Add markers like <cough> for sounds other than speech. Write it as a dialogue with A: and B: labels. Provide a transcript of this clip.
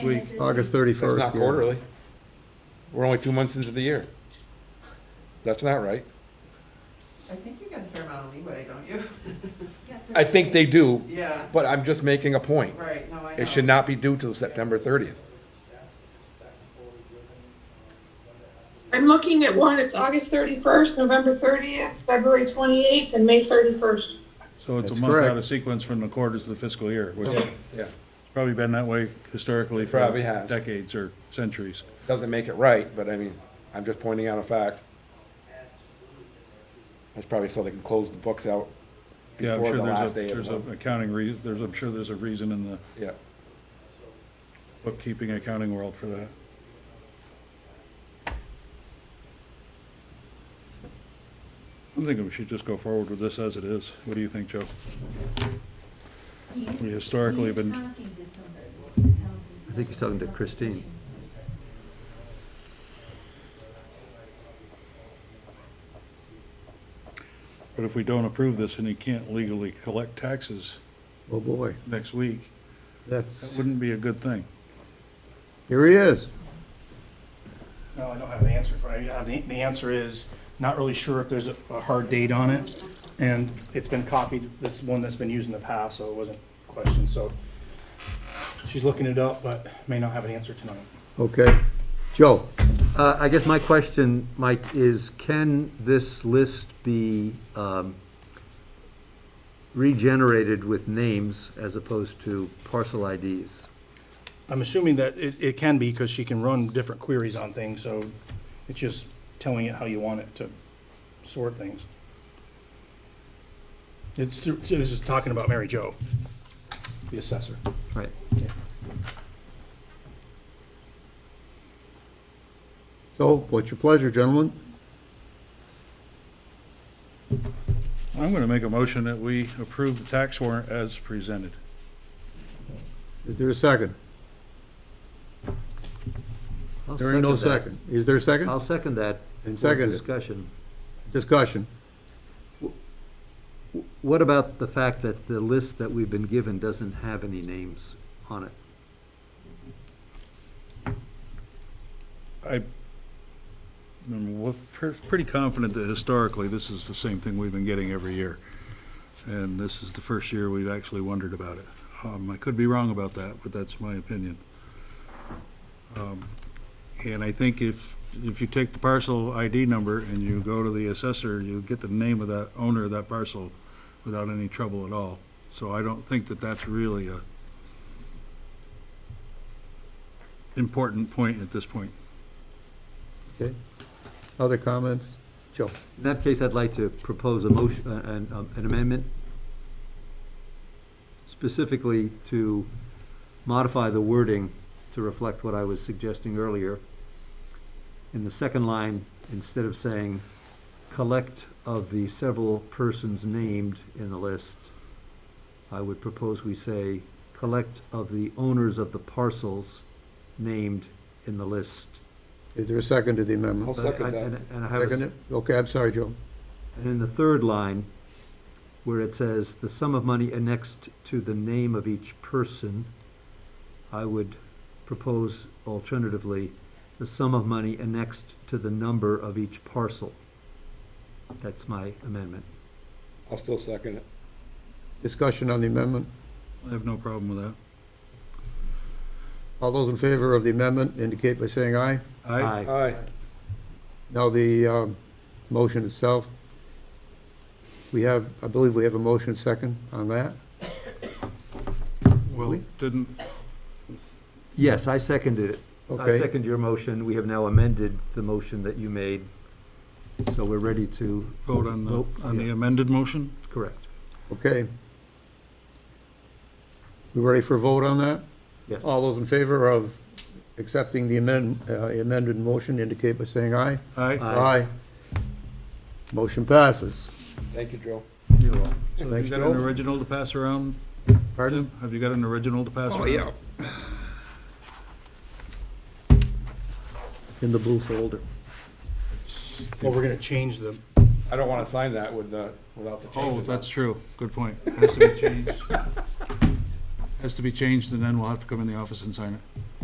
A: week,
B: August
C: That's
B: 31st.
C: not quarterly. We're only two months into the year. That's not right.
D: I think you got a fair amount of leeway, don't you? <laughs>
C: I think they do,
D: Yeah,
C: but I'm just making a point.
D: right, no, I know.
C: It should not be due till September thirtieth.
E: I'm looking at one, it's August 31st, November 30th, February 28th, and May 31st.
A: So it's a
B: That's
A: month out
B: correct.
A: of sequence from the quarters of the fiscal year, which has
C: Yeah,
A: probably been that way historically for
C: Probably has.
A: decades or centuries.
C: doesn't make it right, but I mean, I'm just pointing out a fact. That's probably so they can close the books out
A: Yeah, I'm
C: before
A: sure
C: the
A: there's
C: last
A: a,
C: day of
A: there's
C: the
A: a
C: month.
A: accounting reason, there's, I'm sure there's a reason in the
C: Yeah,
A: bookkeeping, accounting world for that. I'm thinking we should just go forward with this as it is. What do you think, Joe? We historically have been-
B: I think he's talking to Christine.
A: But if we don't approve this and he can't legally collect taxes
B: Oh, boy,
A: next week, that
B: that's,
A: wouldn't be a good thing.
B: here he is.
F: No, I don't have an answer for you. Uh, The, the answer is, not really sure if there's a, a hard date on it. And it's been copied, this is one that's been used in the past, so it wasn't questioned, so. She's looking it up, but may not have an answer tonight.
B: Okay. Joe,
G: Uh, I guess my question, Mike, is can this list be um, regenerated with names as opposed to parcel IDs?
F: I'm assuming that it, it can be, because she can run different queries on things, so it's just telling it how you want it to sort things. It's, through- this is talking about Mary Jo, the assessor.
G: Right.
B: so what's your pleasure, gentlemen?
A: I'm going to make a motion that we approve the tax warrant as presented.
B: Is there a second?
G: I'll
B: There ain't no
G: that.
B: second. Is there a second?
G: I'll second that.
B: And
G: for
B: second it.
G: Discussion.
B: Discussion.
G: What about the fact that the list that we've been given doesn't have any names on it?
A: I, I'm wa- pre- pretty confident that historically, this is the same thing we've been getting every year. And this is the first year we've actually wondered about it. Um, I could be wrong about that, but that's my opinion. Um, And I think if, if you take the parcel ID number and you go to the assessor, you get the name of that owner of that parcel without any trouble at all. So I don't think that that's really a important point at this point.
B: Okay. Other comments? Joe?
G: In that case, I'd like to propose a motion, uh, an um, an amendment specifically to modify the wording to reflect what I was suggesting earlier. In the second line, instead of saying, "collect of the several persons named in the list," I would propose we say, "collect of the owners of the parcels named in the list."
B: Is there a second to the
C: I'll
B: amendment?
C: second
G: And-
C: that.
G: and- And I have a
B: Second it? Okay, I'm sorry, Joe.
G: and in the third line, where it says, "The sum of money annexed to the name of each person," I would propose alternatively, "The sum of money annexed to the number of each parcel." That's my amendment.
C: I'll still second it.
B: Discussion on the amendment.
A: I have no problem with that.
B: All those in favor of the amendment indicate by saying aye.
A: I,
C: Aye.
B: Now, the um, motion itself, we have, I believe we have a motion second on that.
A: well, didn't,
G: Yes, I seconded it. I
B: Okay,
G: second your motion. We have now amended the motion that you made, so we're ready to.
A: vote on the,
G: Vote,
A: on the
G: yeah,
A: amended motion?
G: Correct,
B: okay. We ready for a vote on that?
G: yes.
B: All those in favor of accepting the amend- uh, amended motion indicate by saying aye.
A: Aye.
G: Aye.
B: Motion passes.
C: Thank you, Joe.
A: Have
B: Thanks,
A: you got an
B: Joe.
A: original to pass around?
B: Pardon?
A: Jim? Have you got an original to
C: Oh,
A: pass around?
B: In the blue folder.
F: Well, we're gonna change the,
C: I don't want to sign that with, uh, without the changes.
A: Oh, that's true. Good point. Has to be changed. Has to be changed, and then we'll have to come in the office and sign it.